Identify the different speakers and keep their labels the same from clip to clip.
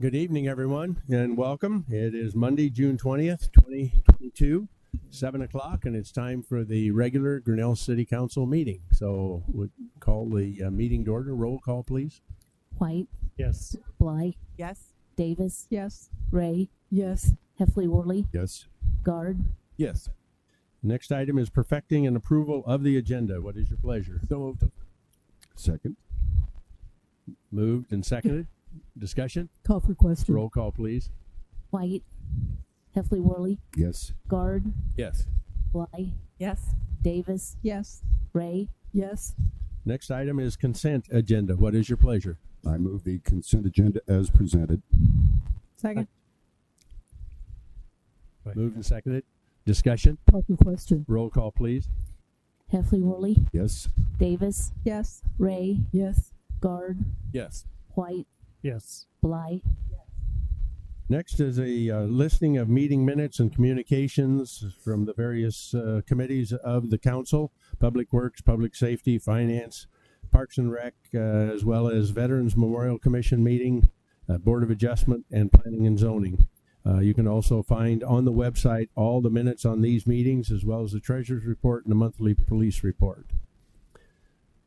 Speaker 1: Good evening, everyone, and welcome. It is Monday, June twentieth, twenty twenty-two, seven o'clock, and it's time for the regular Grinnell City Council meeting. So would call the uh, meeting to order. Roll call, please.
Speaker 2: White,
Speaker 3: Yes.
Speaker 2: Bly,
Speaker 4: Yes.
Speaker 2: Davis,
Speaker 4: Yes.
Speaker 2: Ray,
Speaker 4: Yes.
Speaker 2: Heffley Worley,
Speaker 1: Yes.
Speaker 2: Guard.
Speaker 3: Yes.
Speaker 1: Next item is perfecting and approval of the agenda. What is your pleasure?
Speaker 3: So moved.
Speaker 1: Second. Moved and seconded. Discussion?
Speaker 4: Call for question.
Speaker 1: Roll call, please.
Speaker 2: White, Heffley Worley,
Speaker 1: Yes.
Speaker 2: Guard,
Speaker 3: Yes.
Speaker 2: Bly,
Speaker 4: Yes.
Speaker 2: Davis,
Speaker 4: Yes.
Speaker 2: Ray,
Speaker 4: Yes.
Speaker 1: Next item is consent agenda. What is your pleasure?
Speaker 5: I move the consent agenda as presented.
Speaker 4: Second.
Speaker 1: Moved and seconded. Discussion?
Speaker 4: Call for question.
Speaker 1: Roll call, please.
Speaker 2: Heffley Worley,
Speaker 5: Yes,
Speaker 2: Davis,
Speaker 4: Yes.
Speaker 2: Ray,
Speaker 4: Yes.
Speaker 2: Guard,
Speaker 3: Yes.
Speaker 2: White,
Speaker 3: Yes.
Speaker 2: Bly,
Speaker 1: Next is a uh, listing of meeting minutes and communications from the various uh, committees of the council, Public Works, Public Safety, Finance, Parks and Rec, uh, as well as Veterans Memorial Commission meeting, uh, Board of Adjustment, and Planning and Zoning. Uh, You can also find on the website all the minutes on these meetings, as well as the treasurer's report and the monthly police report.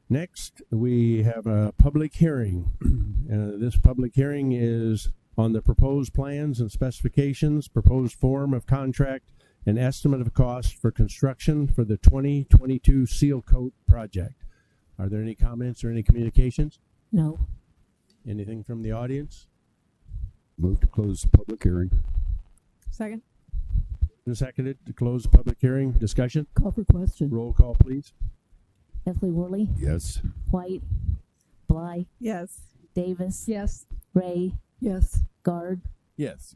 Speaker 1: Next, we have a public hearing. Uh, This public hearing is on the proposed plans and specifications, proposed form of contract, and estimate of cost for construction for the 2022 Seal Coat project. Are there any comments or any communications?
Speaker 2: no,
Speaker 1: Anything from the audience?
Speaker 5: move to close the public hearing.
Speaker 4: Second.
Speaker 1: And Seconded to close the public hearing. Discussion?
Speaker 4: Call for question.
Speaker 1: Roll call, please.
Speaker 2: Heffley Worley,
Speaker 5: Yes,
Speaker 2: White, Bly,
Speaker 4: Yes.
Speaker 2: Davis,
Speaker 4: Yes.
Speaker 2: Ray,
Speaker 4: Yes.
Speaker 2: Guard,
Speaker 3: Yes.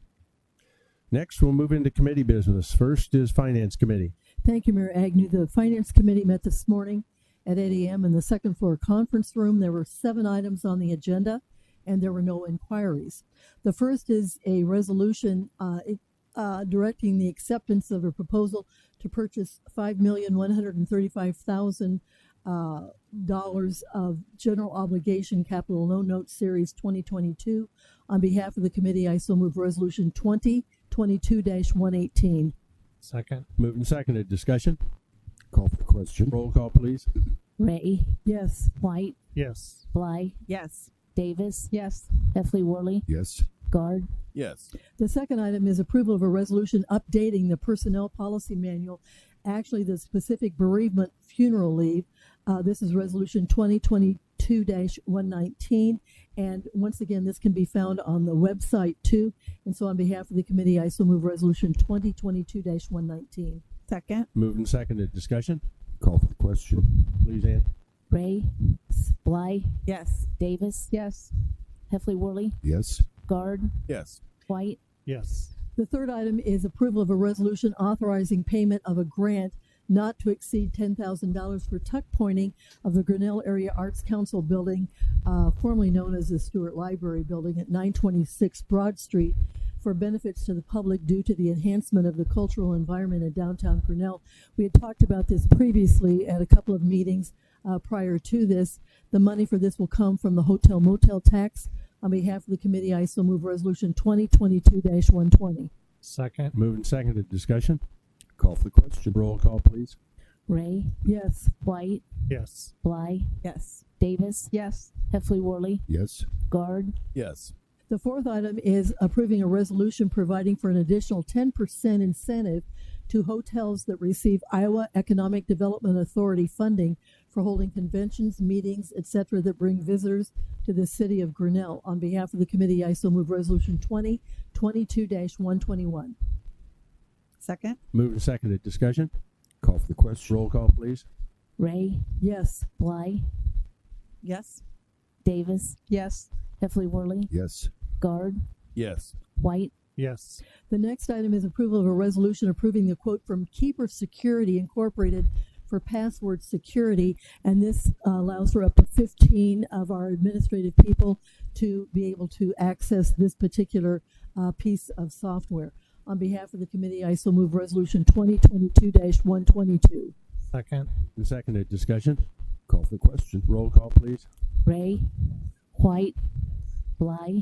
Speaker 1: Next, we'll move into committee business. First is Finance Committee.
Speaker 6: Thank you, Mayor Agnew. The Finance Committee met this morning at 8 AM in the second floor conference room. There were seven items on the agenda, and there were no inquiries. The first is a resolution uh, it- uh, directing the acceptance of a proposal to purchase $5,135,000 uh, dollars of general obligation capital loan note series 2022. On behalf of the committee, I so move Resolution 2022-118.
Speaker 3: Second.
Speaker 1: Moved and seconded. Discussion?
Speaker 5: call for the question.
Speaker 1: Roll call, please.
Speaker 2: Ray,
Speaker 6: Yes.
Speaker 2: White,
Speaker 3: Yes.
Speaker 2: Bly,
Speaker 4: Yes.
Speaker 2: Davis,
Speaker 4: Yes.
Speaker 2: Heffley Worley,
Speaker 5: Yes,
Speaker 2: Guard,
Speaker 3: Yes.
Speaker 6: The second item is approval of a resolution updating the personnel policy manual, actually the specific bereavement funeral leave. Uh, this is resolution twenty twenty-two one nineteen. And once again, this can be found on the website too. And so on behalf of the committee, I so move resolution twenty twenty-two one nineteen.
Speaker 4: Second.
Speaker 1: Moved and seconded. Discussion?
Speaker 5: call for the question.
Speaker 1: Please, Ann.
Speaker 2: Ray, Bly,
Speaker 4: Yes.
Speaker 2: Davis,
Speaker 4: Yes.
Speaker 2: Heffley Worley,
Speaker 5: Yes,
Speaker 2: Guard,
Speaker 3: Yes.
Speaker 2: White,
Speaker 3: Yes.
Speaker 6: The third item is approval of a resolution authorizing payment of a grant not to exceed ten thousand dollars for tuck pointing of the Grinnell Area Arts Council building, uh, formerly known as the Stewart Library Building at nine twenty-six Broad Street for benefits to the public due to the enhancement of the cultural environment in downtown Grinnell. We had talked about this previously at a couple of meetings, uh, prior to this. The money for this will come from the hotel motel tax. On behalf of the committee, I so move resolution twenty twenty-two one twenty.
Speaker 3: Second.
Speaker 1: Moved and seconded. Discussion?
Speaker 5: Call for the question.
Speaker 1: Roll call, please.
Speaker 2: Ray,
Speaker 6: Yes.
Speaker 2: White,
Speaker 3: Yes.
Speaker 2: Bly,
Speaker 4: Yes.
Speaker 2: Davis,
Speaker 4: Yes.
Speaker 2: Heffley Worley,
Speaker 5: Yes,
Speaker 2: Guard,
Speaker 3: Yes.
Speaker 6: The fourth item is approving a resolution providing for an additional ten percent incentive to hotels that receive Iowa Economic Development Authority funding for holding conventions, meetings, et cetera, that bring visitors to the city of Grinnell. On behalf of the committee, I so move resolution twenty twenty-two one twenty-one.
Speaker 4: Second.
Speaker 1: Moved and seconded. Discussion?
Speaker 5: call for the question.
Speaker 1: Roll call, please.
Speaker 2: Ray,
Speaker 6: Yes.
Speaker 2: Bly,
Speaker 4: Yes.
Speaker 2: Davis,
Speaker 4: Yes.
Speaker 2: Heffley Worley,
Speaker 5: Yes,
Speaker 2: Guard,
Speaker 3: Yes.
Speaker 2: White,
Speaker 3: Yes.
Speaker 6: The next item is approval of a resolution approving the quote from Keeper Security Incorporated for password security. And this uh, allows for up to 15 of our administrative people to be able to access this particular uh, piece of software. On behalf of the committee, I so move resolution 2022-122.
Speaker 3: Second.
Speaker 1: And seconded. Discussion?
Speaker 5: call for the question.
Speaker 1: Roll call, please.
Speaker 2: Ray, White, Bly,